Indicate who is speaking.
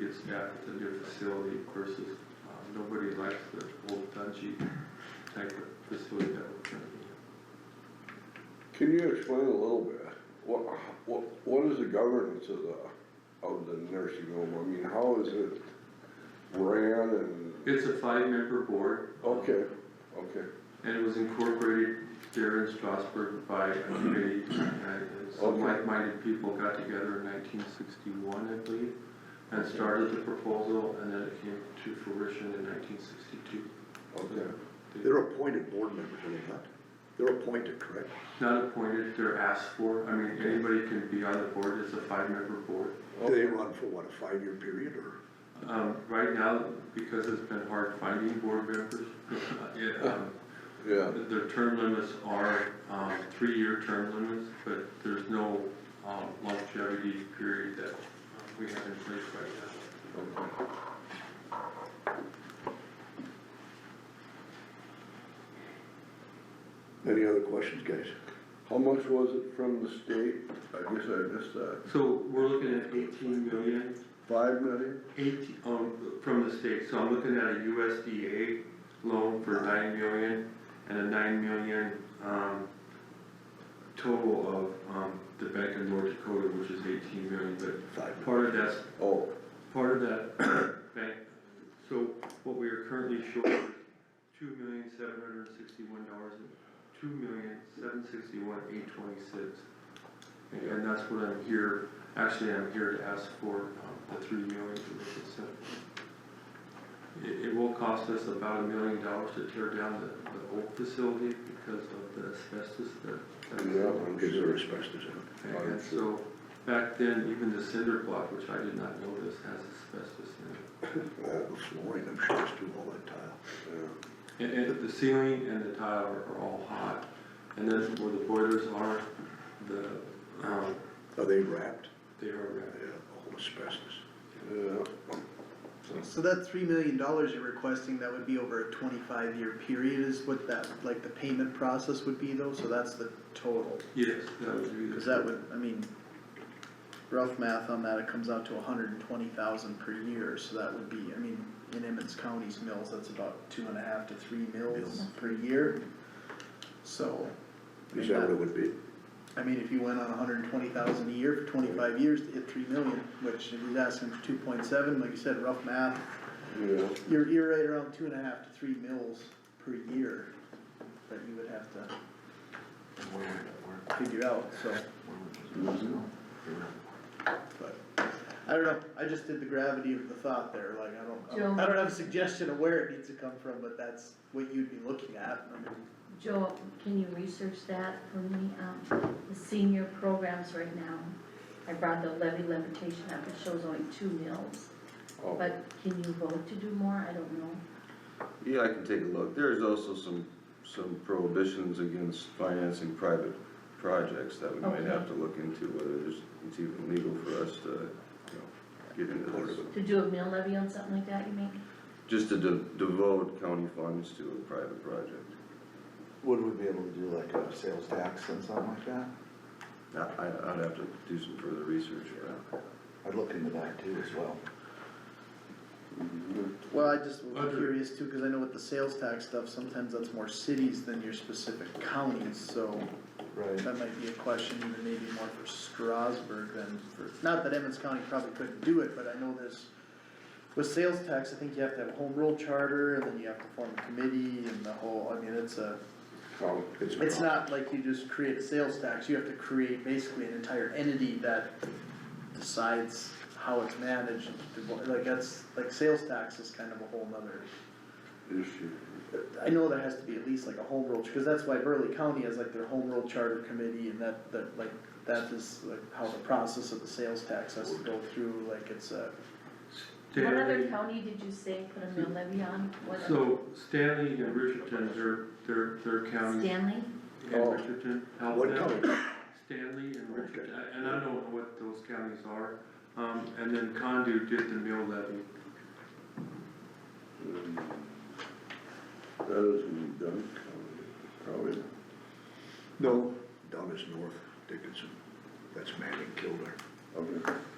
Speaker 1: it's got to their facility versus, um, nobody likes the old dungy type of facility that we're currently in.
Speaker 2: Can you explain a little bit, what, what, what is the governance of the, of the nursing home? I mean, how is it ran and,
Speaker 1: It's a five-member board.
Speaker 2: okay, okay,
Speaker 1: And it was incorporated there in Strasbourg by a committee, and some
Speaker 2: Okay.
Speaker 1: like-minded people got together in nineteen sixty-one, I believe, and started the proposal, and then it came to fruition in nineteen sixty-two.
Speaker 2: okay.
Speaker 3: They're appointed board members, are they not? They're appointed, correct?
Speaker 1: Not appointed, they're asked for, I mean, anybody can be on the board, it's a five-member board.
Speaker 3: Do they run for what, a five-year period or?
Speaker 1: Um, right now, because it's been hard finding board members, it, um,
Speaker 2: Yeah,
Speaker 1: Their term limits are, um, three-year term limits, but there's no, um, longevity period that um, we have in place right now.
Speaker 2: okay.
Speaker 3: Any other questions, guys?
Speaker 2: How much was it from the state? I guess I missed that.
Speaker 1: So we're looking at eighteen million,
Speaker 2: Five million?
Speaker 1: eighteen, um, from the state, so I'm looking at a USDA loan for nine million and a nine million, um, total of, um, the Bank of North Dakota, which is eighteen million, but
Speaker 3: Five members.
Speaker 1: part of that's
Speaker 2: Oh,
Speaker 1: part of that bank, so what we are currently short is two million seven hundred and sixty-one dollars, two million seven sixty-one eight twenty-six. And that's what I'm here, actually, I'm here to ask for, um, the three million to make it simple. It, it will cost us about a million dollars to tear down the, the old facility because of the asbestos that. that's in
Speaker 2: Yeah,
Speaker 1: it.
Speaker 2: I'm
Speaker 3: Is there asbestos in it?
Speaker 1: And so, back then, even the cinder block, which I did not notice, has asbestos in it.
Speaker 3: All the flooring, I'm sure it's too, all that tile.
Speaker 2: yeah,
Speaker 1: And, and the ceiling and the tile are, are all hot. And then where the boilers are, the, um,
Speaker 3: Are they wrapped?
Speaker 1: they are
Speaker 3: Yeah,
Speaker 1: red.
Speaker 3: all asbestos.
Speaker 2: yeah.
Speaker 4: So that three million dollars you're requesting, that would be over a twenty-five year period is what that, like the payment process would be though, so that's the total.
Speaker 1: Yes, that would be the.
Speaker 4: Cause that would, I mean, rough math on that, it comes out to hundred and twenty thousand per year, so that would be, I mean, in Emmons County's mills, that's about two and a half to three mills
Speaker 3: Mills.
Speaker 4: per year. So, I mean,
Speaker 3: Is that what
Speaker 4: that-
Speaker 3: it would be?
Speaker 4: I mean, if you went on hundred and twenty thousand a year for twenty-five years to hit three million, which if he's asking for two point seven, like you said, rough math,
Speaker 2: Yeah,
Speaker 4: You're, you're right around two and a half to three mils per year that you would have to figure out, so,
Speaker 3: Mm-hmm.
Speaker 4: but. I don't know, I just did the gravity of the thought there, like, I don't- I don't,
Speaker 5: Joe.
Speaker 4: I don't have a suggestion of where it needs to come from, but that's what you'd be looking at. I mean,
Speaker 5: Joel, can you research that for me? Um, the senior programs right now, I brought the levy levitation up, it shows only two mills.
Speaker 2: oh,
Speaker 5: But can you vote to do more? I don't know.
Speaker 6: Yeah, I can take a look. There's also some, some prohibitions against financing private projects that we might have to look into, whether there's, it's even legal for us to, you know, get into this.
Speaker 5: To do a mill levy on something like that, you mean?
Speaker 6: Just to de- devote county funds to a private project.
Speaker 7: Would we be able to do like a sales tax and something like that?
Speaker 6: I, I- I'd have to do some further research for that.
Speaker 7: I'd look into that too as well.
Speaker 4: Well, I just was
Speaker 1: Under-
Speaker 4: curious too, cause I know with the sales tax stuff, sometimes that's more cities than your specific counties, so
Speaker 7: Right.
Speaker 4: that might be a question even maybe more for Strasburg than for, not that Emmons County probably couldn't do it, but I know there's, with sales tax, I think you have to have a home rule charter, and then you have to form a committee and the whole, I mean, it's a,
Speaker 2: oh, it's a
Speaker 4: it's not like you just create a sales tax, you have to create basically an entire entity that decides how it's managed, like that's, like sales tax is kind of a whole nother
Speaker 2: issue.
Speaker 4: I know there has to be at least like a home rule, because that's why Burley County has like their home rule charter committee and that, that like, that is like how the process of the sales tax has to go through, like it's a.
Speaker 5: What other
Speaker 1: Stanley,
Speaker 5: county did you say put a mill levy on? What-
Speaker 1: so Stanley and Richardson, their, their, their county
Speaker 5: Stanley?
Speaker 1: and Richardson helped
Speaker 3: What
Speaker 1: them.
Speaker 3: color?
Speaker 1: Stanley and Richardson, I- and I don't know what those counties are. Um, and then Condu did the mill levy.
Speaker 2: That is in Duncan, probably.
Speaker 3: No, down is north Dickinson. That's Manning Kilder.
Speaker 2: Okay.